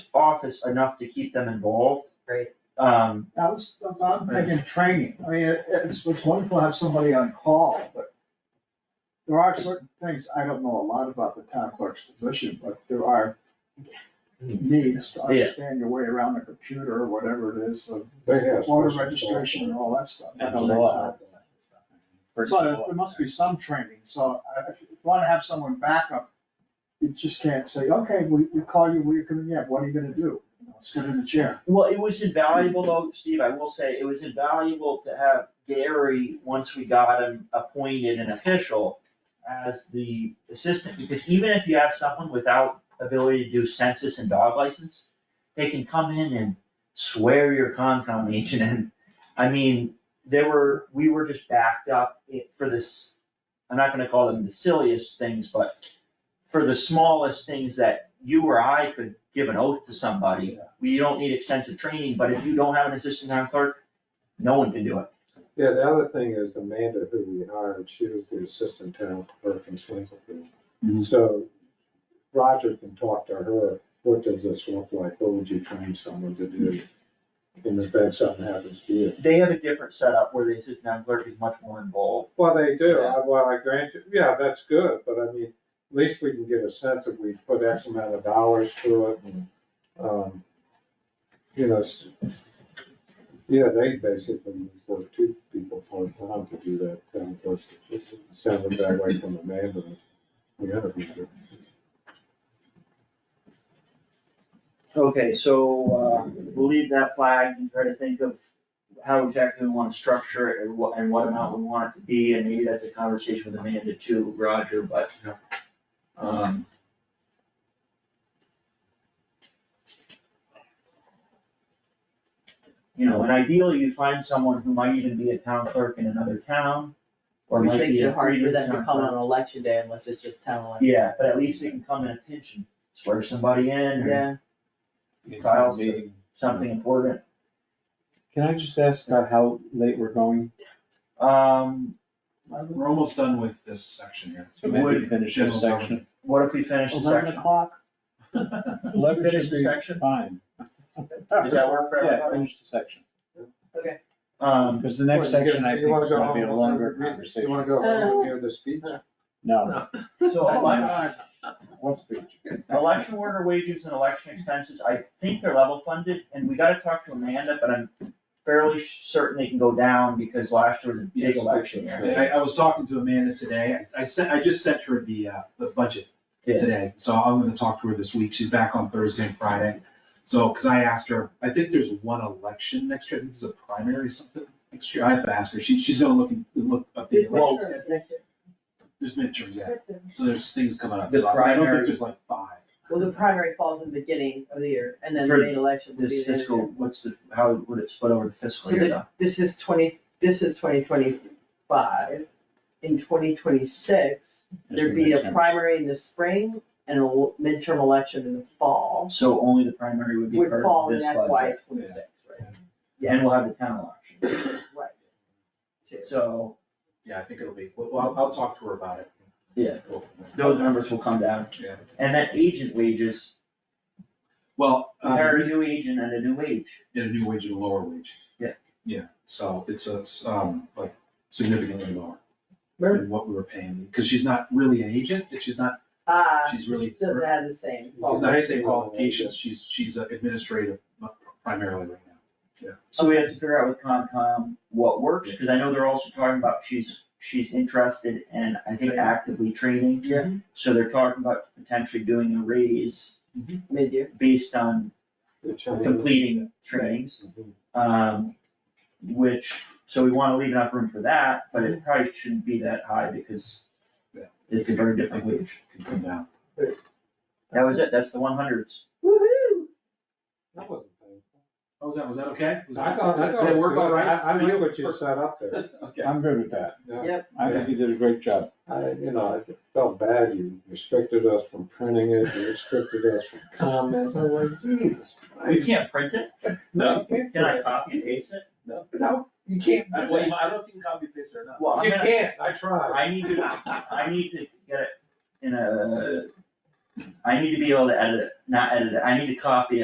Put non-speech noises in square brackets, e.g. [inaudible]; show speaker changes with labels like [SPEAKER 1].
[SPEAKER 1] office enough to keep them involved.
[SPEAKER 2] Right.
[SPEAKER 1] Um,
[SPEAKER 3] I was, I'm thinking training, I mean, it- it's, it's wonderful to have somebody on call, but there are certain things, I don't know a lot about the town clerk's position, but there are needs to
[SPEAKER 1] Yeah.
[SPEAKER 3] understand your way around a computer or whatever it is, the
[SPEAKER 4] They have.
[SPEAKER 3] voter
[SPEAKER 4] special
[SPEAKER 3] registration and all that stuff. I
[SPEAKER 5] And
[SPEAKER 3] don't
[SPEAKER 5] the
[SPEAKER 3] know
[SPEAKER 5] law.
[SPEAKER 3] that. So there- there must be some training, so I- if you wanna have someone backup, you just can't say, okay, we, we call you, we're coming in, what are you gonna do? You know, Sit in the chair.
[SPEAKER 1] well, it was invaluable though, Steve, I will say, it was invaluable to have Gary, once we got him appointed an official as the assistant, because even if you have someone without ability to do census and dog license, they can come in and swear your Concom agent and, I mean, there were, we were just backed up i- for this, I'm not gonna call them the silliest things, but for the smallest things that you or I could give an oath to somebody, we don't need extensive training, but if you don't have an assistant town clerk, no one can do it.
[SPEAKER 4] Yeah, the other thing is Amanda, who we hired, she was the assistant town clerk in Slinglefield.
[SPEAKER 5] Mhm.
[SPEAKER 4] So Roger can talk to her, what does this look like, what would you train someone to do? In the event something happens to you.
[SPEAKER 1] They have a different setup where the assistant town clerk is much more involved.
[SPEAKER 4] Well, they do, I, well, I grant you, yeah, that's good, but I mean, at least we can get a sense if we put X amount of dollars to it and, um, you know, s- yeah, they basically work two people part time to do that, kind of course, send them that way from Amanda. We have a,
[SPEAKER 1] Okay, so, uh, we'll leave that flag and try to think of how exactly we wanna structure it and what, and what amount we want it to be, and maybe that's a conversation with Amanda too, Roger, but. Um. You know, and ideally you find someone who might even be a town clerk in another town, or
[SPEAKER 2] Which
[SPEAKER 1] might
[SPEAKER 2] makes
[SPEAKER 1] be a
[SPEAKER 2] it hard for
[SPEAKER 1] previous
[SPEAKER 2] them to
[SPEAKER 1] town
[SPEAKER 2] come on
[SPEAKER 1] clerk.
[SPEAKER 2] election day unless it's just town election.
[SPEAKER 1] Yeah, but at least they can come in a pinch and swear somebody in, or
[SPEAKER 2] Yeah,
[SPEAKER 5] In
[SPEAKER 1] Kyle's- uh,
[SPEAKER 5] town meeting.
[SPEAKER 1] something important.
[SPEAKER 5] Can I just ask about how late we're going?
[SPEAKER 1] Um,
[SPEAKER 6] We're almost done with this section here.
[SPEAKER 5] So maybe finish this
[SPEAKER 6] General
[SPEAKER 5] section.
[SPEAKER 1] what if we finish the
[SPEAKER 3] Eleven
[SPEAKER 1] section?
[SPEAKER 3] o'clock,
[SPEAKER 6] government.
[SPEAKER 4] [laughs]
[SPEAKER 5] Eleven
[SPEAKER 1] [laughs] Finish
[SPEAKER 5] should
[SPEAKER 1] the
[SPEAKER 5] be
[SPEAKER 1] section?
[SPEAKER 5] Fine.
[SPEAKER 1] Does that work for
[SPEAKER 5] Yeah,
[SPEAKER 1] everybody?
[SPEAKER 5] finish the section,
[SPEAKER 1] Um,
[SPEAKER 5] because the next
[SPEAKER 4] Well, you
[SPEAKER 5] section I
[SPEAKER 4] get-
[SPEAKER 5] think
[SPEAKER 4] you wanna
[SPEAKER 5] is
[SPEAKER 4] go
[SPEAKER 5] gonna be a
[SPEAKER 4] home,
[SPEAKER 5] longer
[SPEAKER 4] you- You wanna
[SPEAKER 5] conversation.
[SPEAKER 4] go home and hear the speech?
[SPEAKER 5] No,
[SPEAKER 2] [laughs]
[SPEAKER 1] so
[SPEAKER 2] Oh
[SPEAKER 1] elec-
[SPEAKER 5] what's the?
[SPEAKER 1] election worker wages and election expenses, I think they're level funded, and we gotta talk to Amanda, but I'm fairly certain they can go down because last year was a big
[SPEAKER 6] Yes.
[SPEAKER 1] election year.
[SPEAKER 6] I, I was talking to Amanda today, I sent, I just sent her the, uh, the budget
[SPEAKER 1] Yeah.
[SPEAKER 6] today, so I'm gonna talk to her this week, she's back on Thursday and Friday. So, cause I asked her, I think there's one election next year, I think there's a primary or something next year, I have to ask her, she, she's gonna look, and- look up the,
[SPEAKER 2] these
[SPEAKER 6] well,
[SPEAKER 2] midterms next year.
[SPEAKER 6] there's midterms, yeah, so there's things coming up,
[SPEAKER 1] The
[SPEAKER 6] so I don't
[SPEAKER 1] primary-
[SPEAKER 6] think there's like five.
[SPEAKER 2] Well, the primary falls in the beginning of the year and then the
[SPEAKER 1] For
[SPEAKER 2] main election will be
[SPEAKER 1] This
[SPEAKER 2] the end of the
[SPEAKER 1] fiscal,
[SPEAKER 2] year.
[SPEAKER 1] what's the, how would it split over the fiscal
[SPEAKER 2] So
[SPEAKER 1] year
[SPEAKER 2] the-
[SPEAKER 1] though?
[SPEAKER 2] This is twenty, this is twenty twenty-five. In twenty twenty-six, there'd be a primary in the spring and a l- midterm election in the fall.
[SPEAKER 1] So only the primary would be
[SPEAKER 2] Would
[SPEAKER 1] part
[SPEAKER 2] fall
[SPEAKER 1] of
[SPEAKER 2] in
[SPEAKER 1] this
[SPEAKER 2] FY
[SPEAKER 1] budget,
[SPEAKER 2] twenty-six, right?
[SPEAKER 1] and we'll have the town election,
[SPEAKER 2] Right. Two.
[SPEAKER 1] so
[SPEAKER 6] Yeah, I think it'll be, well, I'll, I'll talk to her about it.
[SPEAKER 1] Yeah.
[SPEAKER 6] Go from there.
[SPEAKER 1] those numbers will come down.
[SPEAKER 6] Yeah.
[SPEAKER 1] And then agent wages,
[SPEAKER 6] Well,
[SPEAKER 1] we
[SPEAKER 6] um,
[SPEAKER 1] hire a new agent and a new wage.
[SPEAKER 6] at a new wage and a lower wage.
[SPEAKER 1] Yeah.
[SPEAKER 6] Yeah, so it's a, s- um, like significantly lower
[SPEAKER 2] Right.
[SPEAKER 6] than what we were paying, because she's not really an agent, and she's not,
[SPEAKER 2] Ah,
[SPEAKER 6] she's really, she's
[SPEAKER 2] doesn't have the same.
[SPEAKER 6] not the same
[SPEAKER 4] Well,
[SPEAKER 6] qualifications, she's, she's a administrative uh, primarily right now.
[SPEAKER 1] So we have to figure out with Concom what works, because I know they're also talking about she's, she's interested and I think actively training.
[SPEAKER 2] Yeah.
[SPEAKER 1] So they're talking about potentially doing a raise
[SPEAKER 2] Mid-year.
[SPEAKER 1] based on
[SPEAKER 4] The Chinese-
[SPEAKER 1] completing trainings. Um, which, so we wanna leave enough room for that, but it probably shouldn't be that high because
[SPEAKER 6] Yeah.
[SPEAKER 1] it's a very different wage.
[SPEAKER 6] Can come down.
[SPEAKER 1] That was it, that's the one hundreds.
[SPEAKER 2] Woo-hoo!
[SPEAKER 4] That wasn't painful.
[SPEAKER 6] Oh, was that, was that okay? Was
[SPEAKER 4] I
[SPEAKER 6] that-
[SPEAKER 4] thought, I thought.
[SPEAKER 6] Did
[SPEAKER 4] it
[SPEAKER 6] it work
[SPEAKER 4] was-
[SPEAKER 6] all right?
[SPEAKER 4] I, I knew what you set up there.
[SPEAKER 6] Okay.
[SPEAKER 5] I'm good with that.
[SPEAKER 4] Yeah.
[SPEAKER 5] I think you did a great job.
[SPEAKER 4] I, you know, I felt bad, you restricted us from printing it, you restricted us from comments, I was like, Jesus.
[SPEAKER 1] You can't print it?
[SPEAKER 4] No.
[SPEAKER 1] Can I copy and paste it?
[SPEAKER 4] No, you can't
[SPEAKER 6] I
[SPEAKER 4] do
[SPEAKER 6] well,
[SPEAKER 4] that.
[SPEAKER 6] you- I don't know if you can copy paste or not.
[SPEAKER 1] Well, I'm
[SPEAKER 4] You
[SPEAKER 1] gonna-
[SPEAKER 4] can't, I tried.
[SPEAKER 1] I need to, I need to get it in a, I need to be able to edit it, not edit it, I need to copy it